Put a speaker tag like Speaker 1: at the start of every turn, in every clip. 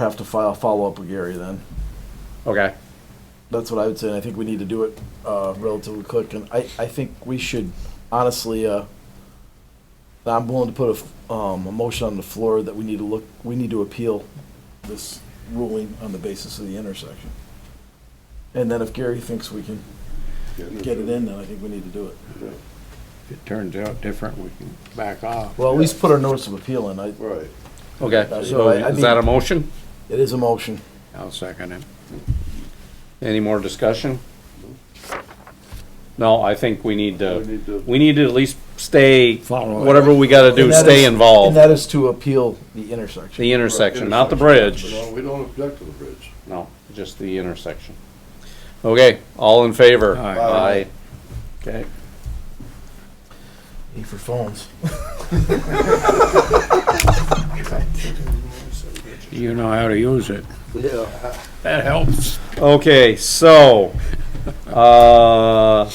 Speaker 1: have to file, follow up with Gary then.
Speaker 2: Okay.
Speaker 1: That's what I would say, and I think we need to do it uh, relatively quick. And I, I think we should, honestly, uh, I'm willing to put a, f- um, a motion on the floor that we need to look, we need to appeal this ruling on the basis of the intersection. And then if Gary thinks we can get it in, then I think we need to do it.
Speaker 3: If it turns out different, we can back off.
Speaker 1: Well, at least put our notice of appeal in. I,
Speaker 4: Right.
Speaker 2: Okay.
Speaker 1: Uh,
Speaker 2: So
Speaker 1: I- I
Speaker 2: is that a
Speaker 1: mean-
Speaker 2: motion?
Speaker 1: it is a motion.
Speaker 3: I'll second it.
Speaker 2: Any more discussion? No, I think we need
Speaker 4: We need
Speaker 2: to,
Speaker 4: to-
Speaker 2: we need to at least stay,
Speaker 3: Follow it.
Speaker 2: whatever we gotta do,
Speaker 1: And that
Speaker 2: stay
Speaker 1: is- And
Speaker 2: involved.
Speaker 1: that is to appeal the intersection.
Speaker 2: The intersection, not the bridge.
Speaker 4: No, uh, we don't object to the bridge.
Speaker 2: No, just the intersection. Okay, all in favor?
Speaker 3: Aye.
Speaker 4: Aye.
Speaker 2: Okay.
Speaker 1: Need for phones.
Speaker 3: You know how to use it.
Speaker 4: Yeah.
Speaker 3: That helps.
Speaker 2: Okay, so, uh,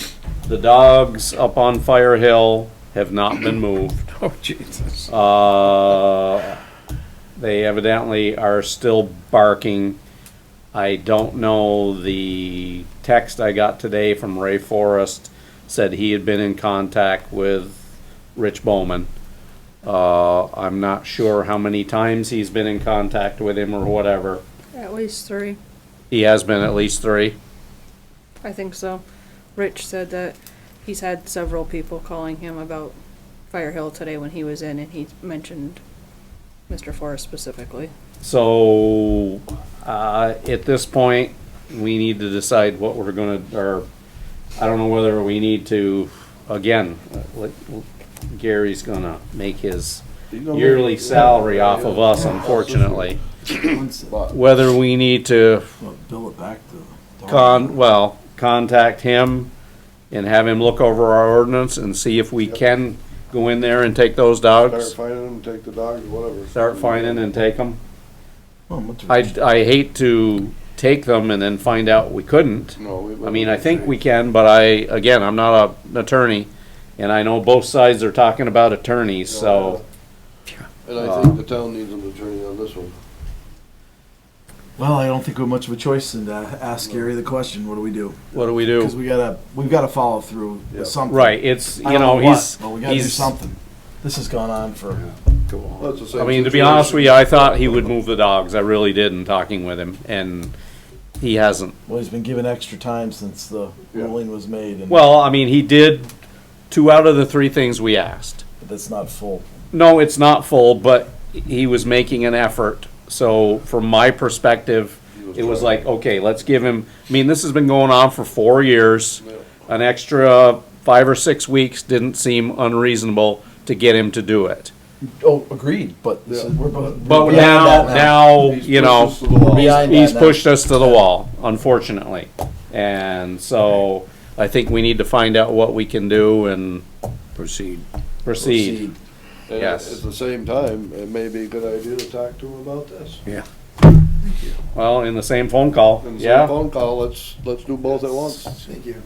Speaker 2: the dogs up on Fire Hill have not been moved.
Speaker 3: Oh, Jesus.
Speaker 2: Uh, they evidently are still barking. I don't know, the text I got today from Ray Forrest said he had been in contact with Rich Bowman. Uh, I'm not sure how many times he's been in contact with him or whatever.
Speaker 5: At least three,
Speaker 2: He has been at least three.
Speaker 5: I think so. Rich said that he's had several people calling him about Fire Hill today when he was in, and he mentioned Mr. Forrest specifically.
Speaker 2: So, uh, at this point, we need to decide what we're gonna, or, I don't know whether we need to, again, let- Gary's gonna make his yearly salary off of us, unfortunately.
Speaker 4: But
Speaker 2: Whether we need to
Speaker 1: Well, Bill it back to.
Speaker 2: con, well, contact him and have him look over our ordinance and see if we can go in there and take those
Speaker 4: start
Speaker 2: dogs,
Speaker 4: finding them, take the dogs, whatever.
Speaker 2: start finding and take them.
Speaker 1: Well, what's-
Speaker 2: I, I hate to take them and then find out we couldn't.
Speaker 4: No, we.
Speaker 2: I mean, I think we can, but I, again, I'm not a- an attorney, and I know both sides are talking about attorneys, so, uh,
Speaker 4: And I think the town needs an attorney on this one.
Speaker 1: Well, I don't think we have much of a choice than to ask Gary the question. What do we do?
Speaker 2: what do we
Speaker 1: Because
Speaker 2: do?
Speaker 1: we gotta, we've gotta follow through
Speaker 4: Yeah.
Speaker 1: with something.
Speaker 2: Right, it's,
Speaker 1: I
Speaker 2: you
Speaker 1: don't
Speaker 2: know,
Speaker 1: what,
Speaker 2: he's,
Speaker 1: But we gotta do
Speaker 2: he's, I
Speaker 1: something. This has gone on for,
Speaker 3: Go
Speaker 4: That's the same
Speaker 2: mean, to be
Speaker 4: situation.
Speaker 2: honest with you, I thought he would move the dogs, I really did in talking with him, and he hasn't.
Speaker 1: well, he's been given extra time since the
Speaker 4: Yeah.
Speaker 1: ruling was made and
Speaker 2: Well, I mean, he did two out of the three things we asked.
Speaker 1: that's not full.
Speaker 2: No, it's not full, but he was making an effort. So from my perspective, it was like, okay, let's give him, I mean, this has been going on for four years. An extra five or six weeks didn't seem unreasonable to get him to do it.
Speaker 1: Oh, agreed, but this is, we're.
Speaker 2: But now, now, you know,
Speaker 4: He's pushed us to the wall.
Speaker 1: Behind
Speaker 2: he's
Speaker 1: that now.
Speaker 2: pushed us to the wall, unfortunately. And so I think we need to find out what we can do and
Speaker 3: Proceed.
Speaker 2: proceed.
Speaker 4: And
Speaker 2: yes.
Speaker 4: At the same time, it may be a good idea to talk to him about this.
Speaker 2: Well, in the same phone call,
Speaker 4: And send a
Speaker 2: yeah.
Speaker 4: phone call, let's, let's do both at once.
Speaker 6: Thank you.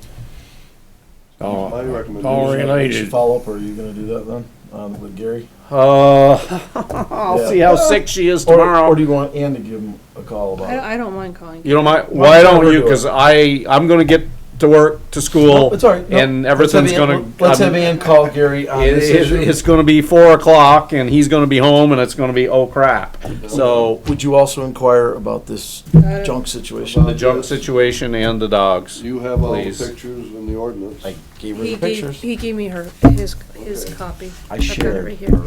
Speaker 3: Oh,
Speaker 4: My recommendation.
Speaker 3: all
Speaker 1: We should
Speaker 3: related.
Speaker 1: follow up, or are you gonna do that then, um, with Gary?
Speaker 2: Uh, I'll
Speaker 1: Yeah.
Speaker 2: see how sick she is
Speaker 1: Or-
Speaker 2: tomorrow.
Speaker 1: Or do you want Ann to give him a call about it?
Speaker 5: I, I don't mind calling.
Speaker 2: you know my
Speaker 1: Why
Speaker 2: why
Speaker 1: don't
Speaker 2: don't
Speaker 1: we
Speaker 2: you?
Speaker 1: do it?
Speaker 2: Because I I'm gonna get to work to
Speaker 1: No,
Speaker 2: school.
Speaker 1: It's all right. No,
Speaker 2: and
Speaker 1: let's have
Speaker 2: everything's
Speaker 1: Ann-
Speaker 2: gonna.
Speaker 1: Let's
Speaker 2: I'm-
Speaker 1: have Ann call Gary on
Speaker 2: it-
Speaker 1: this
Speaker 2: it-
Speaker 1: issue.
Speaker 2: it's gonna be four o'clock, and he's gonna be home, and it's gonna be oh crap. So
Speaker 1: Would you also inquire about this
Speaker 5: Uh,
Speaker 1: junk situation?
Speaker 2: the junk situation and the dogs.
Speaker 4: You have all the
Speaker 2: Please.
Speaker 4: pictures and the ordinance.
Speaker 1: I gave her
Speaker 5: He
Speaker 1: the
Speaker 5: gave,
Speaker 1: pictures.
Speaker 5: he gave me her, his, his
Speaker 4: Okay.
Speaker 5: copy.
Speaker 1: I
Speaker 5: I've got it
Speaker 1: shared
Speaker 5: right here.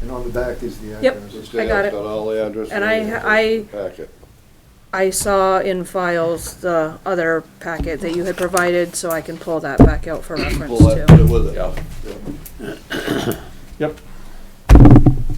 Speaker 6: And on the back is the
Speaker 5: Yep.
Speaker 6: address.
Speaker 4: Let's get-
Speaker 5: I got it.
Speaker 4: Got all the addresses.
Speaker 5: And I- I-
Speaker 4: Packet.
Speaker 5: I saw in files the other packet that you had provided, so I can pull that back out for reference
Speaker 4: Pull that,
Speaker 5: too.
Speaker 4: put it with it.
Speaker 2: Yeah.
Speaker 4: Yeah.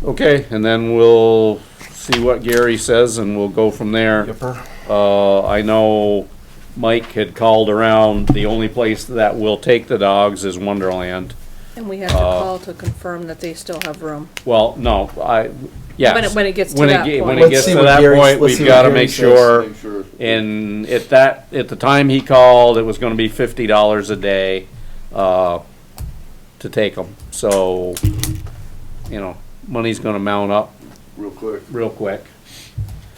Speaker 2: Okay, and then we'll see what Gary says, and we'll go from there.
Speaker 1: Yipper.
Speaker 2: Uh, I know Mike had called around. The only place that will take the dogs is Wonderland.
Speaker 5: And we have to call to confirm that they still have room.
Speaker 2: Well, no, I, yes.
Speaker 5: When it- when it gets to
Speaker 2: When it
Speaker 5: that
Speaker 2: ge- When
Speaker 5: point.
Speaker 2: it
Speaker 1: Let's
Speaker 2: gets
Speaker 1: see
Speaker 2: to
Speaker 1: what
Speaker 2: that
Speaker 1: Gary's-
Speaker 2: point,
Speaker 1: let's
Speaker 2: we've
Speaker 1: see what
Speaker 2: gotta
Speaker 1: Gary
Speaker 2: make
Speaker 1: says.
Speaker 2: sure,
Speaker 4: Make sure.
Speaker 2: and at that, at the time he called, it was gonna be fifty dollars a day, uh, to take them. So, you know, money's gonna mount up
Speaker 4: Real quick.
Speaker 2: real quick.